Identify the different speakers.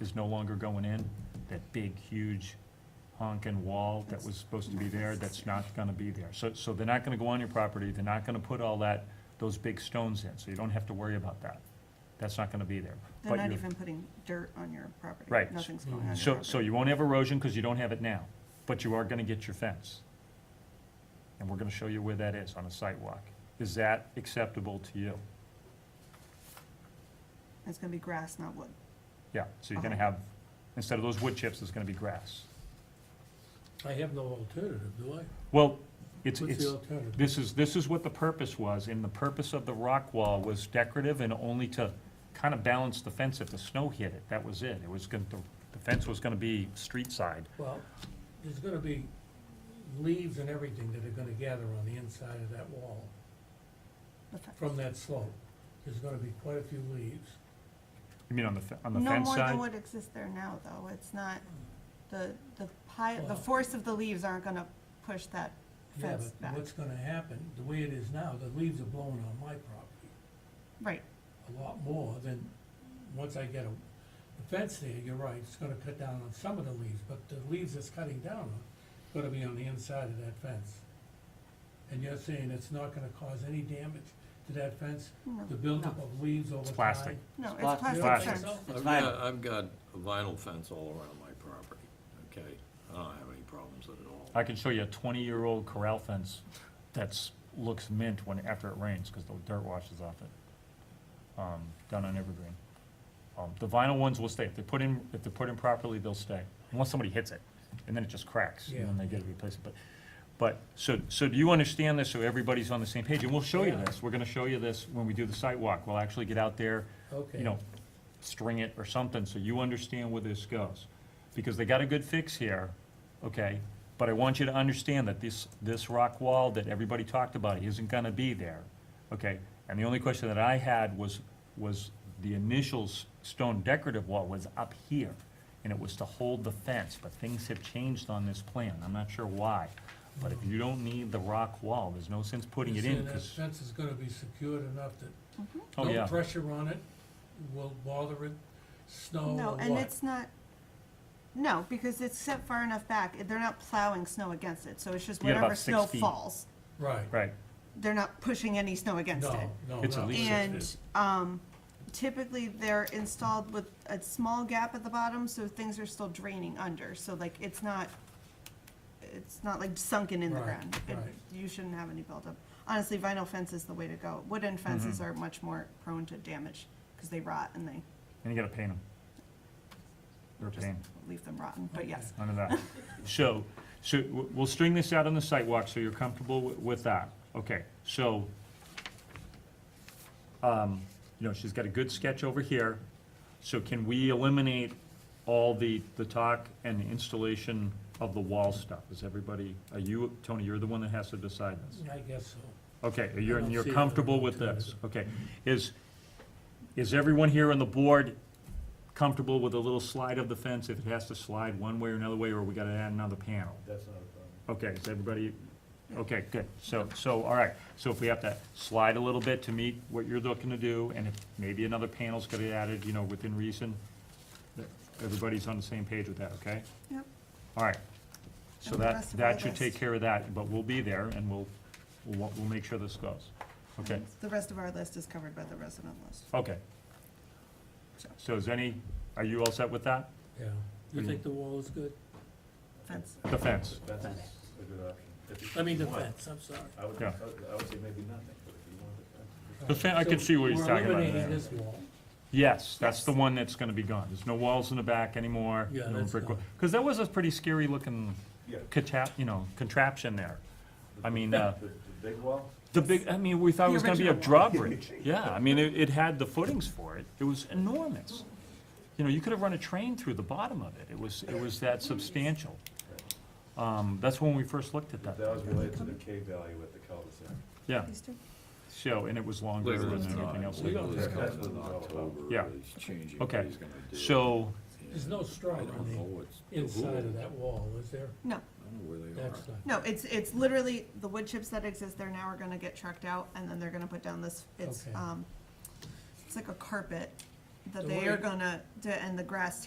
Speaker 1: is no longer going in, that big, huge honking wall that was supposed to be there, that's not gonna be there. So, so they're not gonna go on your property, they're not gonna put all that, those big stones in, so you don't have to worry about that. That's not gonna be there.
Speaker 2: They're
Speaker 1: But
Speaker 2: not
Speaker 1: you-
Speaker 2: even putting dirt on your property.
Speaker 1: Right.
Speaker 2: Nothing's going on your
Speaker 1: So,
Speaker 2: property.
Speaker 1: so you won't have erosion, because you don't have it now, but you are gonna get your fence. And we're gonna show you where that is on a sidewalk. Is that acceptable to you?
Speaker 2: It's gonna be grass, not wood.
Speaker 1: Yeah, so you're gonna
Speaker 2: Uh-huh.
Speaker 1: have, instead of those wood chips, it's gonna be grass.
Speaker 3: I have no alternative, do I?
Speaker 1: Well, it's,
Speaker 3: What's
Speaker 1: it's,
Speaker 3: the alternative?
Speaker 1: this is, this is what the purpose was, and the purpose of the rock wall was decorative and only to kind of balance the fence if the snow hit it, that was it. It was gonna, the the fence was gonna be street side.
Speaker 3: Well, there's gonna be leaves and everything that are gonna gather on the inside of that wall
Speaker 2: The fe-
Speaker 3: from that slope. There's gonna be quite a few leaves.
Speaker 1: You mean on the, fe- on the
Speaker 2: No
Speaker 1: fence
Speaker 2: more
Speaker 1: side?
Speaker 2: than what exists there now, though. It's not, the, the pile, the
Speaker 3: Well-
Speaker 2: force of the leaves aren't gonna push that
Speaker 3: Yeah,
Speaker 2: fence
Speaker 3: but
Speaker 2: back.
Speaker 3: what's gonna happen, the way it is now, the leaves are blowing on my property
Speaker 2: Right,
Speaker 3: a lot more than, once I get a, the fence there, you're right, it's gonna cut down on some of the leaves, but the leaves it's cutting down on, gonna be on the inside of that fence. And you're saying it's not gonna cause any damage to that fence?
Speaker 2: No.
Speaker 3: The buildup of leaves over time?
Speaker 1: plastic.
Speaker 2: no,
Speaker 4: Spot-
Speaker 2: it's plastic
Speaker 1: Plastic.
Speaker 2: fence.
Speaker 4: It's vinyl.
Speaker 5: I've got, I've got a vinyl fence all around my property, okay? I don't have any problems with it at all.
Speaker 1: I can show you a twenty-year-old corral fence that's, looks mint when, after it rains, because the dirt washes off it, um, down on Evergreen. Um, the vinyl ones will stay, if they're put in, if they're put in properly, they'll stay, unless somebody hits it, and then it just cracks, and then they get to replace it, but, but, so, so do you understand this, so everybody's on the same page, and we'll show you
Speaker 3: Yeah.
Speaker 1: this, we're gonna show you this when we do the site walk, we'll actually get out there,
Speaker 3: Okay.
Speaker 1: you know, string it or something, so you understand where this goes. Because they got a good fix here, okay, but I want you to understand that this, this rock wall that everybody talked about isn't gonna be there, okay? And the only question that I had was, was the initial s- stone decorative wall was up here, and it was to hold the fence, but things have changed on this plan, I'm not sure why. But if you don't need the rock wall, there's no sense putting it
Speaker 3: You're
Speaker 1: in,
Speaker 3: saying
Speaker 1: because,
Speaker 3: that fence is gonna be secured enough that
Speaker 1: oh yeah.
Speaker 3: no pressure on it will bother it, snow or
Speaker 2: No,
Speaker 3: what?
Speaker 2: and it's not, no, because it's set far enough back, they're not plowing snow against it, so it's just
Speaker 1: You got about
Speaker 2: whatever
Speaker 1: six
Speaker 2: snow
Speaker 1: feet.
Speaker 2: falls.
Speaker 3: Right,
Speaker 1: Right,
Speaker 2: They're not pushing any snow against it.
Speaker 3: no, no,
Speaker 1: It's at
Speaker 3: no.
Speaker 1: least
Speaker 2: And um, typically, they're installed with a small gap at the bottom, so things are still draining under. So like, it's not, it's not like sunken in the
Speaker 3: Right,
Speaker 2: ground. It-
Speaker 3: right.
Speaker 2: You shouldn't have any buildup. Honestly, vinyl fence is the way to go. Wooden fences
Speaker 3: Mm-hmm.
Speaker 2: are much more prone to damage because they rot and they
Speaker 1: and you gotta paint them. They're a
Speaker 2: just
Speaker 1: pain.
Speaker 2: leave them rotten, but yes.
Speaker 1: None of that. So, so w- we'll string this out on the sidewalk, so you're comfortable wi- with that. Okay, so, um, you know, she's got a good sketch over here. So can we eliminate all the, the talk and the installation of the wall stuff? Is everybody, are you, Tony, you're the one that has to decide this?
Speaker 3: I guess so.
Speaker 1: Okay, you're,
Speaker 3: don't
Speaker 1: you're
Speaker 3: see it.
Speaker 1: comfortable with this, okay. Is, is everyone here on the board comfortable with a little slide of the fence if it has to slide one way or another way, or we gotta add another panel?
Speaker 6: That's not a
Speaker 1: Okay, is everybody, okay, good, so, so, all right, so if we have to slide a little bit to meet what you're looking to do, and if maybe another panel's gonna be added, you know, within reason, that everybody's on the same page with that, okay?
Speaker 2: Yep.
Speaker 1: All right, so
Speaker 2: And the
Speaker 1: that,
Speaker 2: rest of our
Speaker 1: that should
Speaker 2: list.
Speaker 1: take care of that, but we'll be there, and we'll, we'll, wa- we'll make sure this goes, okay?
Speaker 2: The rest of our list is covered by the resident list.
Speaker 1: Okay. So is any, are you all set with that?
Speaker 3: Yeah. You think the wall is good?
Speaker 2: Fence.
Speaker 1: The fence,
Speaker 6: problem. Fence is a good option. If you-
Speaker 3: I mean, the
Speaker 6: if you want,
Speaker 3: fence, I'm sorry.
Speaker 6: I would,
Speaker 1: Yeah.
Speaker 6: I would say maybe nothing, but if you want uh, the fence.
Speaker 1: The fe- I can see what he's
Speaker 3: We're
Speaker 1: talking about
Speaker 3: eliminating
Speaker 1: there.
Speaker 3: this wall.
Speaker 1: yes, that's
Speaker 2: Yes.
Speaker 1: the one that's gonna be gone, there's no walls in the back anymore.
Speaker 3: Yeah,
Speaker 1: no
Speaker 3: that's
Speaker 1: brick
Speaker 3: gone.
Speaker 1: wa- Cause that was a pretty scary looking
Speaker 6: Yeah.
Speaker 1: cata, you know, contraption there.
Speaker 6: the-
Speaker 1: I mean,
Speaker 6: the-
Speaker 1: uh,
Speaker 6: The the big wall,
Speaker 1: The big, I mean, we thought it
Speaker 2: The
Speaker 1: was gonna be a
Speaker 2: original
Speaker 1: drawbridge, yeah, I mean, it, it had the footings for it, it was enormous. You know, you could have run a train through the bottom of it, it was, it was that substantial. Um, that's when we first looked at
Speaker 6: that
Speaker 1: that,
Speaker 6: was
Speaker 1: thing.
Speaker 6: related to the K value at the cul-de-sac.
Speaker 1: yeah,
Speaker 2: These two?
Speaker 1: so, and it was longer
Speaker 5: Later
Speaker 1: than
Speaker 5: this
Speaker 1: anything
Speaker 5: time.
Speaker 1: else.
Speaker 5: Later this
Speaker 6: That's
Speaker 5: time
Speaker 6: what
Speaker 5: in
Speaker 6: it's all about.
Speaker 5: October,
Speaker 1: Yeah.
Speaker 5: he's changing what
Speaker 1: Okay,
Speaker 5: he's gonna do.
Speaker 1: so,
Speaker 3: There's no
Speaker 5: I
Speaker 3: stripe
Speaker 5: don't
Speaker 3: on
Speaker 5: know
Speaker 3: the
Speaker 5: what's.
Speaker 3: inside of that wall, is there?
Speaker 2: No,
Speaker 5: I don't know where they are.
Speaker 3: That's not.
Speaker 2: no, it's, it's literally, the wood chips that exist there now are gonna get trucked out, and then they're gonna put down this, it's,
Speaker 3: Okay.
Speaker 2: um, it's like a carpet that
Speaker 3: The
Speaker 2: they are
Speaker 3: way-
Speaker 2: gonna, to- and the grass